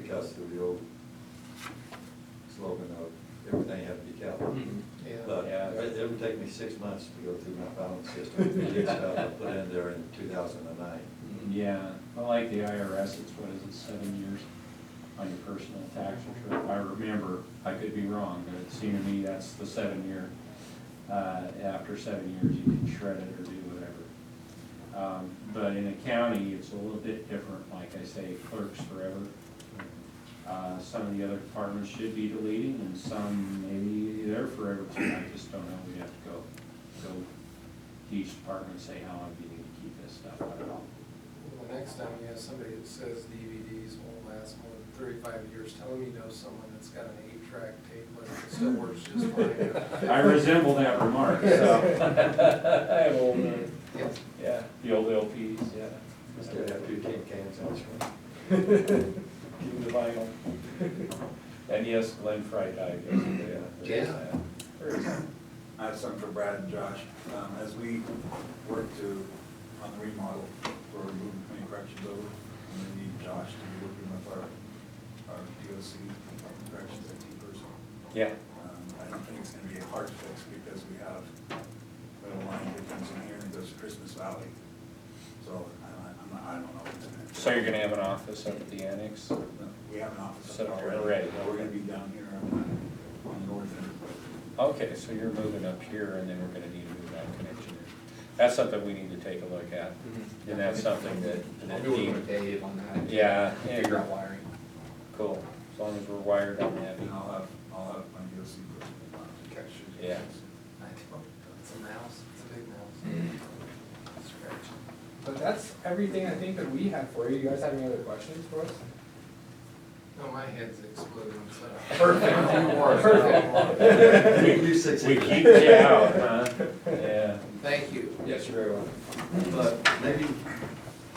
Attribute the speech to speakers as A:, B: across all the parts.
A: because of the old slogan of everything had to be
B: Mhm.
A: counted.
C: Yeah.
A: But it it would take me six months to go through my balance system, the big stuff I put in there in two thousand and nine.
B: Yeah, I like the IRS, it's what is it, seven years on your personal tax return? I remember, I could be wrong, but it seemed to me that's the seven year. Uh, after seven years, you can shred it or do whatever. Um, but in a county, it's a little bit different, like I say, clerks forever. Uh, some of the other departments should be deleting and some maybe they're forever too, I just don't know, we have to go, go to each department and say, how long do you need to keep this stuff, I don't know.
C: Well, The next time you have somebody that says DVDs won't last more than thirty-five years, tell them you know someone that's got an eight-track tape player that still works just fine.
B: I resemble that remark, so. I have old,
C: Yeah.
B: yeah, the old LPs, yeah.
A: Instead of have two tin cans on each one.
B: Give the vinyl. And yes, Glenn Fry died yesterday. yeah, there is
C: Yeah.
B: that. There is that.
D: I have some for Brad and Josh. Um, as we work to, on the remodel, we're moving many corrections over, and we need Josh to be working with our, our DOC, our corrections IT person.
B: Yeah.
D: Um, I don't think it's gonna be a hard fix because we have, we have a line that comes in here and goes to Christmas Valley. So I, I'm not, I don't know what's gonna.
B: So you're gonna have an office up at the annex?
D: We have an office
B: Set
D: up
B: up
D: already.
B: already.
D: We're gonna be down here on, on North End.
B: Okay, so you're moving up here and then we're gonna need to move that connection in. That's something we need to take a look at.
A: Mm-hmm.
B: And that's something that,
E: I'll
B: that
E: be working
B: Dean,
E: with Dave on that.
B: Yeah, yeah.
E: Figure out wiring.
B: cool, as long as we're wired on that.
D: And I'll have, I'll have my E DOC person on the catch.
B: Yeah.
C: I don't- It's a mouse, it's a big mouse. Scratch.
E: But that's everything I think that we have for you. You guys have any other questions for us?
C: No, my head's exploding, so.
E: Perfect.
C: You are.
E: Perfect.
A: We can do six.
B: We keep you out, huh? Yeah.
C: Thank you.
E: Yes, you're very welcome.
A: But maybe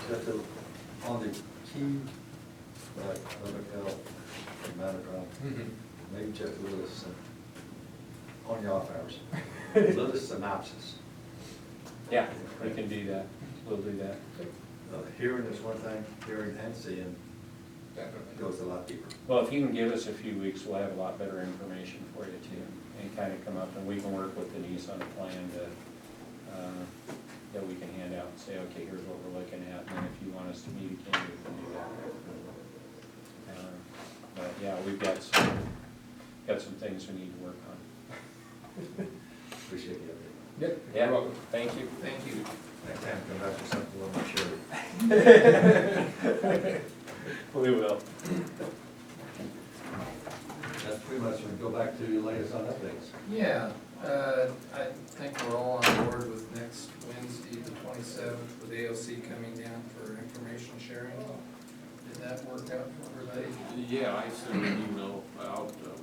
A: just to- on the key, like, public health, and Matagorda, maybe just a little, syn- on your off hours, a little synopsis.
B: Yeah, we can do that, we'll do that.
A: Uh, Hearing is one thing, hearing and seeing
E: Definitely.
A: goes a lot deeper.
B: Well, if you can give us a few weeks, we'll have a lot better information for you too, and kind of come up, and we can work with Denise on a plan to, uh, that we can hand out and say, okay, here's what we're looking at, and if you want us to meet again, we can do that. Um, But yeah, we've got some, got some things we need to work on.
A: Appreciate you.
E: Yep,
B: Yeah,
E: you're welcome.
B: Thank you.
C: Thank you.
A: Next time, come back with something a little more sure.
B: We will.
A: That's pretty much, we go back to your latest on updates.
C: Yeah, uh, I think we're all on board with next Wednesday, the twenty-seventh, with AOC coming down for information sharing. Did that work out for everybody?
F: Yeah, I sent an email out, um,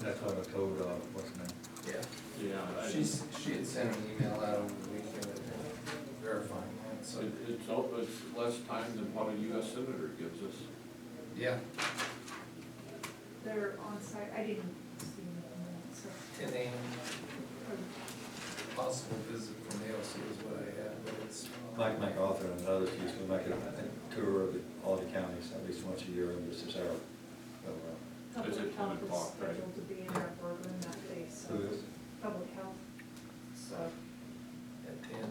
A: That's what I told, uh, what's her name?
C: Yeah.
F: yeah, I-
C: She's, she had sent an email out over the weekend verifying that, so,
F: it- it's, al- it's less time than what a US senator gives us.
C: yeah.
G: They're on site, I didn't see them, so.
C: And then possible visit from AOC is what I had, but it's. uh,
A: Mike MacArthur and others used to make a a tour of the- all the counties at least once a year in this era. So, uh,
F: Is
G: Public
F: it
G: health
F: ten
G: is
F: o'clock, right?
G: scheduled to be in our boardroom that day, so.
A: Who is?
G: Public health, so
C: At ten.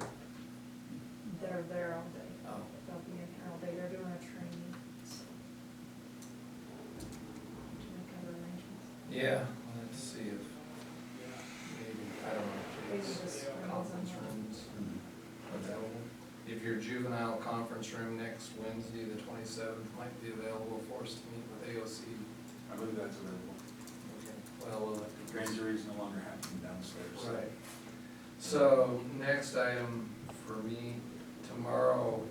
G: they're there all day.
C: Oh.
G: They'll be in here all day, they're doing a training, so. To make other arrangements.
C: Yeah, let's see if, maybe, I don't know.
G: Maybe
C: if it's
G: this one is
C: Conference
G: on.
C: rooms available. If your juvenile conference room next Wednesday, the twenty-seventh, might be available for us to meet with AOC.
D: I believe that's available.
C: Okay, Well, we'll uh, have to.
D: Grand jury's no longer happening downstairs.
C: Right. So, next item for me, tomorrow,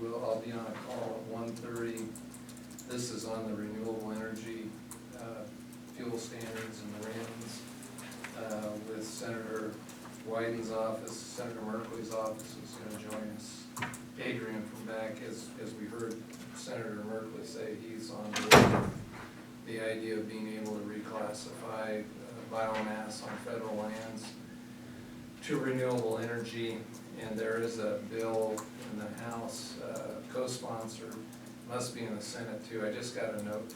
C: will, I'll be on a call at one thirty. This is on the renewable energy, uh, fuel standards and the RINs, uh, with Senator Wyden's office, Senator Merkley's office is gonna join us. Adrian from back, as, as we heard Senator Merkley say, he's on board with the idea of being able to reclassify uh, biomass on federal lands to renewable energy, and there is a bill in the House, uh, co-sponsored, must be in the Senate too. I just got a note